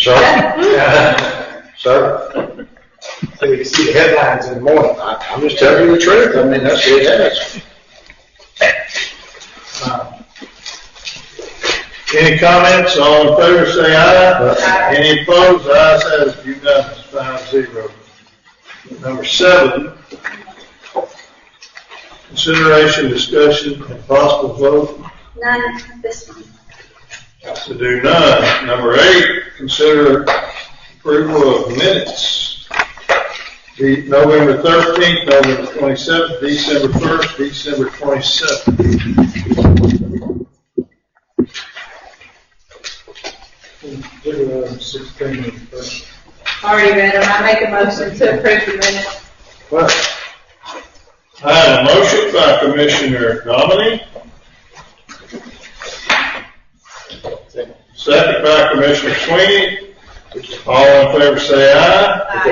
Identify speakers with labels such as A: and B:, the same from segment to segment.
A: Sir, sir,
B: So you can see the headlines in the morning.
A: I- I'm just telling you the truth. I mean, that's what it is.
C: Uh, Any comments, all in favor, say aye. Any opposed, the ayes have it unanimous, five zero. Number seven, consideration, discussion, and possible vote
D: None, this one.
C: to do none. Number eight, consider approval of minutes. The November thirteenth, November twenty-seventh, December first, December twenty-seventh.
E: Already read them. I make a motion to approve the minutes.
C: I had a motion by Commissioner Nominee. Second by Commissioner Sweeney. All in favor say aye.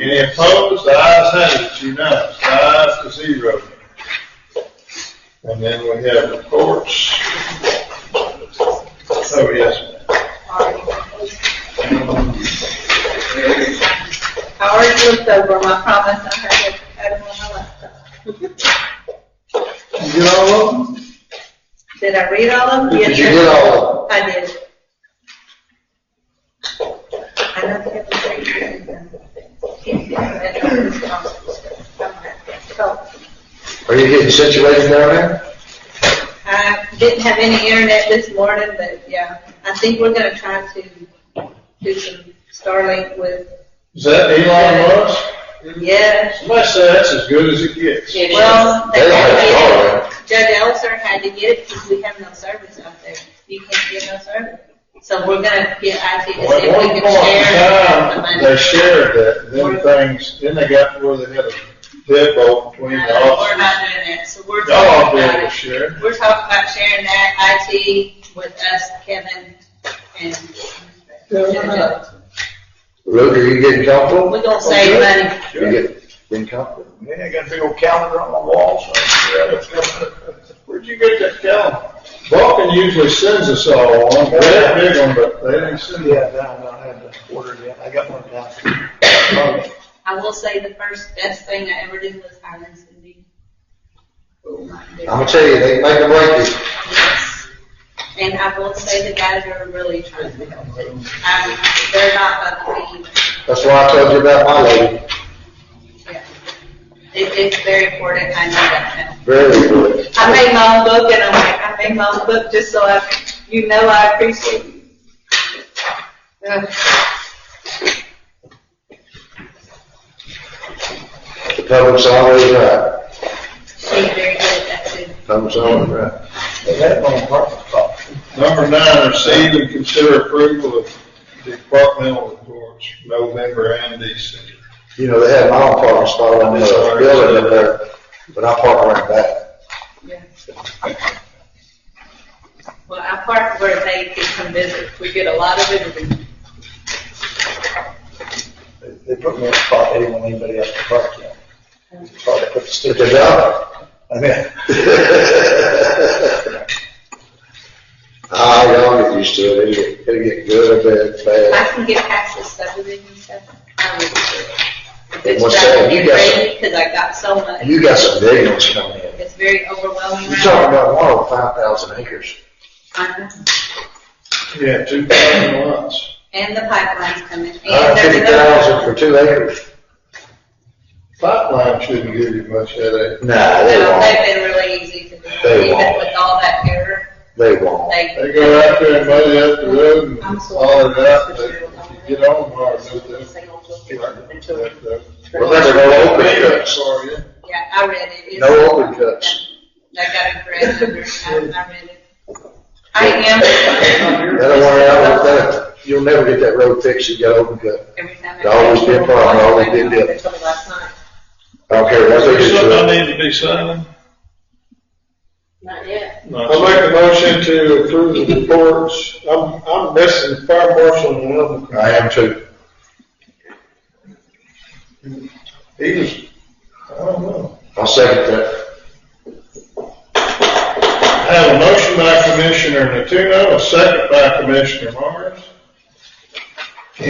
C: Any opposed, the ayes have it, it's unanimous, five to zero. And then we have reports. Oh, yes, ma'am.
E: I already looked over them. I promise I had it had them on my laptop.
C: You get all of them?
E: Did I read all of them?
A: Did you get all
E: of them? I did. I don't have to say anything.
A: Are you getting situated down there?
E: I didn't have any internet this morning, but yeah, I think we're gonna try to do some Starlink with,
C: Is that Elon Musk?
E: yeah,
C: Somebody said that's as good as it gets.
E: Well, they
A: They
E: had
A: had
E: to
A: Starlink.
E: get it. Judge Elser had to get it because we have no service out there. You can't get no service. So we're gonna get IT to see
C: Well, At
E: if
C: one
E: we
C: point in
E: can
C: time,
E: share.
C: they shared that, then things, then they got to where they had a deadbolt between the
E: No, We're
C: offices.
E: not doing that, so we're
C: Y'all ought to
E: talking
C: be able
E: about
C: to
E: it.
C: share.
E: We're talking about sharing that IT with us, Kevin, and.
A: Luke, are you getting comfortable?
E: We're gonna save money.
A: You get, getting comfortable?
B: Yeah, I got a big old calendar on my wall, so. yeah, that's good.
C: Where'd you get that calendar? Vulcan usually sends us all one, they had a big one, but they didn't send it.
B: Yeah, down, down, I haven't ordered yet. I got one down.
E: I will say the first best thing I ever did was Oh hire Cindy. Will not do it.
A: I'm gonna tell you, they make a break this.
E: Yes. And I will say the guys are really trying to help. Um, they're not about to
A: That's why I told you about my lady.
E: be, yeah. It, it's very important, I know that now.
A: Very good.
E: I made my own book and I'm like, I made my own book just so I, you know I appreciate you. Ugh.
A: The public's always right.
E: She's very good at that too.
A: Public's always right.
B: They had one apartment block.
C: Number nine, receive and consider approval of departmental reports, November and December.
A: You know, they had my own parking spot on the building up there, but I park right back.
E: Yeah. Well, I park where they can come visit. We get a lot of visitors.
B: They- They put me in a spot they didn't want anybody else to park in. Probably put the
A: But
B: stick.
A: they're not.
B: I mean,
A: Ah, y'all get used to it. It'll get, it'll get good, bad,
E: I
A: bad.
E: can get past the subdivision stuff. I would do it.
A: They
E: It's
A: must say,
E: driving
A: you
E: me
A: got
E: crazy because I got so much.
A: You got some big ones coming in.
E: It's very overwhelming.
A: You're
E: right
A: talking
E: now.
A: about one over five thousand acres.
E: I know.
C: Yeah, two thousand lots.
E: And the pipeline's coming. And
A: Hundred
E: there's
A: fifty thousand for
E: another
A: two acres.
C: Pipeline shouldn't give you much headache.
A: Nah,
E: one.
A: they
E: No,
A: won't.
E: they've been really easy to do,
A: They
E: even
A: won't.
E: with all that error.
A: They won't.
E: They,
C: They go out there and muddy up the road and all it out, but if you get on hard, there's that.
A: Well, there's no open cuts.
E: yeah, I read it. It's-
A: No open cuts.
E: I got a correct number. I, I read it. I am,
A: That one out with that, you'll never get that road fixed if you got open cut.
E: every time. I-
A: It's always been a problem, always been built.
E: I told you Last night.
A: I don't care what they do to it.
C: need to be signing?
E: Not yet.
C: I'll make a motion to approve the reports. I'm, I'm missing the fire marshal and another.
A: I am too.
C: He was, I don't know.
A: I'll second that.
C: I have a motion by Commissioner Natuno, a second by Commissioner Morris.